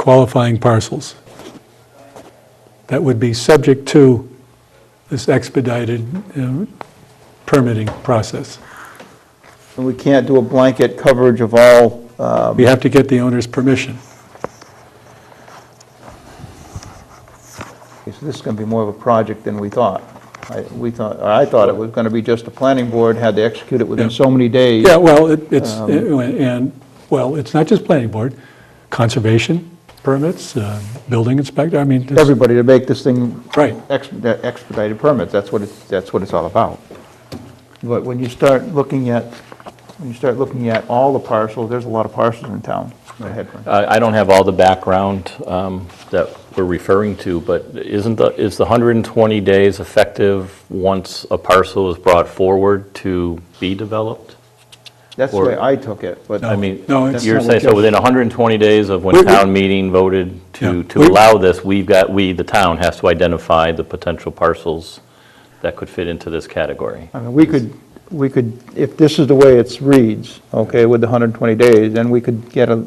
qualifying parcels. That would be subject to this expedited uh, permitting process. And we can't do a blanket coverage of all, uh, We have to get the owner's permission. so this is going to be more of a project than we thought. I- We thought, or I thought it was going to be just the planning board had to execute it within Yeah. so many days. Yeah, well, it- it's, and, well, it's not just planning board, conservation permits, uh, building inspector, I mean, it's- Everybody to make this thing right, ex- expedited permits, that's what it's, that's what it's all about. But when you start looking at, when you start looking at all the parcels, there's a lot of parcels in town. Go ahead, Frank. I I don't have all the background um, that we're referring to, but isn't the, is the 120 days effective once a parcel is brought forward to be developed? That's the Or- way I took it, but. I mean, No, it's- you're saying, so within 120 days of We- when we- town meeting voted Yeah. to, to We- allow this, we've got, we, the town, has to identify the potential parcels that could fit into this category. I mean, we could, we could, if this is the way it's reads, okay, with the 120 days, then we could get a,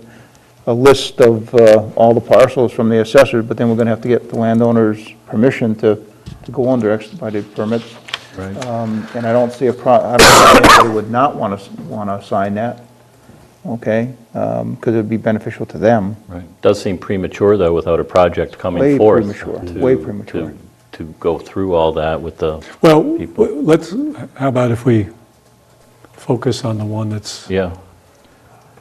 a list of uh, all the parcels from the assessors, but then we're going to have to get the landowner's permission to, to go under expedited permits. Um, And I don't see a pro, I don't see anybody would not want to, want to sign that, okay? um, Because it'd be beneficial to them. Right. Does seem premature, though, without a project Way coming forth. premature, to- way to- premature. To go through all that with the, well, People. w- let's, how about if we focus on the one that's yeah.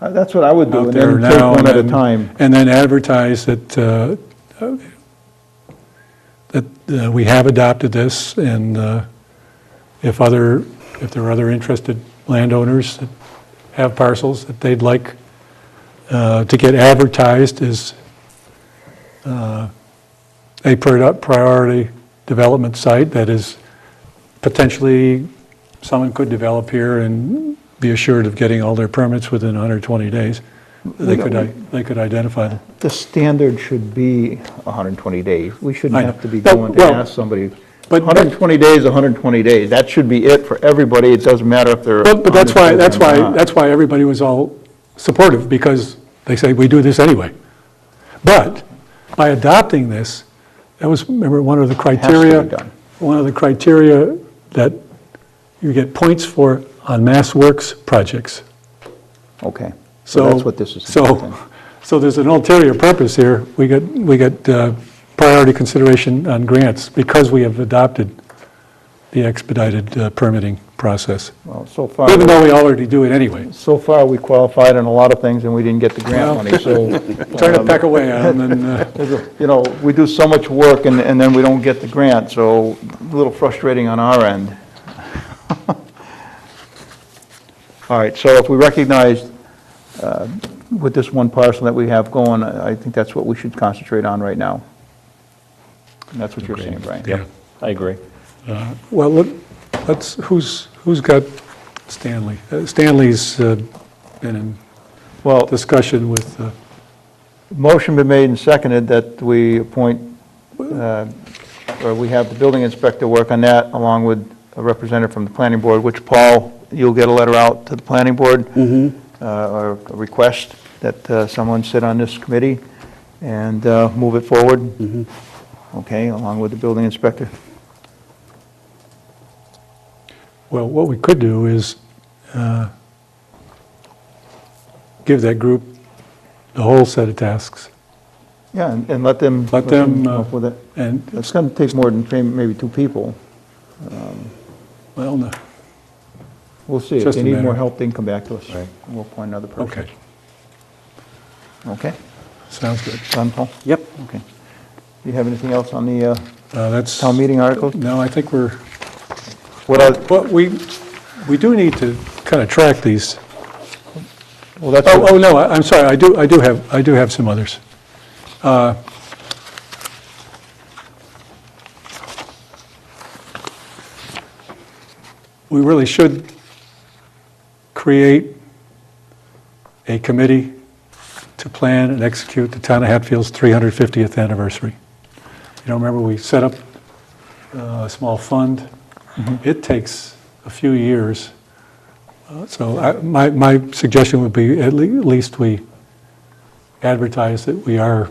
Uh, That's what I would do, out and there then now. take one at a and- time. And then advertise that, uh, that uh, we have adopted this, and uh, if other, if there are other interested landowners that have parcels that they'd like uh, to get advertised as uh, a pri- priority development site that is potentially, someone could develop here and be assured of getting all their permits within 120 days. They could, i- they could identify them. The standard should be 120 days. We shouldn't I know. have to be No, going to well, ask somebody, but- 120 days, 120 days, that should be it for everybody, it doesn't matter if they're. But, but that's why, that's why, on the program that's why everybody was all supportive, because they say, we do this anyway. But by adopting this, that was, remember, one of the to be criteria, done. one of the criteria that you get points for on Mass Works projects. or not. Okay, So so that's what this is. about then. So, so there's an ulterior purpose here. We get, we get uh, priority consideration on grants because we have adopted the expedited uh, permitting process, Well, so far, even though we already do it anyway. so far, we qualified on a lot of things and we didn't get the grant Well, money, so. Trying Um, to peck away at them and, uh, there's a- You know, we do so much work and, and then we don't get the grant, so a little frustrating on our end. All right, so if we recognize uh, with this one parcel that we have going, I I think that's what we should concentrate on right now. And that's what you're saying, Brian. Yep, I agree. well, let- let's, who's, who's got Stanley? Uh, Stanley's uh, been in Well, discussion with, uh, motion been made and seconded that we appoint, uh, or we have the building inspector work on that, along with a representative from the planning board, which, Paul, you'll get a letter out to the planning board, Mm-hmm. uh, or a request that uh, someone sit on this committee and uh, move it forward. Mm-hmm. Okay, along with the building inspector. well, what we could do is uh, give that group the whole set of tasks. Yeah, and and let them... Let them, come uh, up with it. And, It's going to take more than three- maybe two people. well, no, We'll see. If Just they a need more matter. help, they can come back to us. Right. And We'll appoint another person. okay, Okay, sounds good. done, Paul? Yep. Okay. Do you have anything else on the uh, Uh, That's, town meeting articles? no, I think we're, What else? well, we, we do need to kind of track these. Well, that's, Oh, oh, no, I- I'm sorry, I do, I do have, I do have some others. Uh, We really should create a committee to plan and execute the town of Hatfield's 350th anniversary. You know, remember, we set up uh, a small fund. It takes a few years. So I- my, my suggestion would be at le- at least we advertise that we are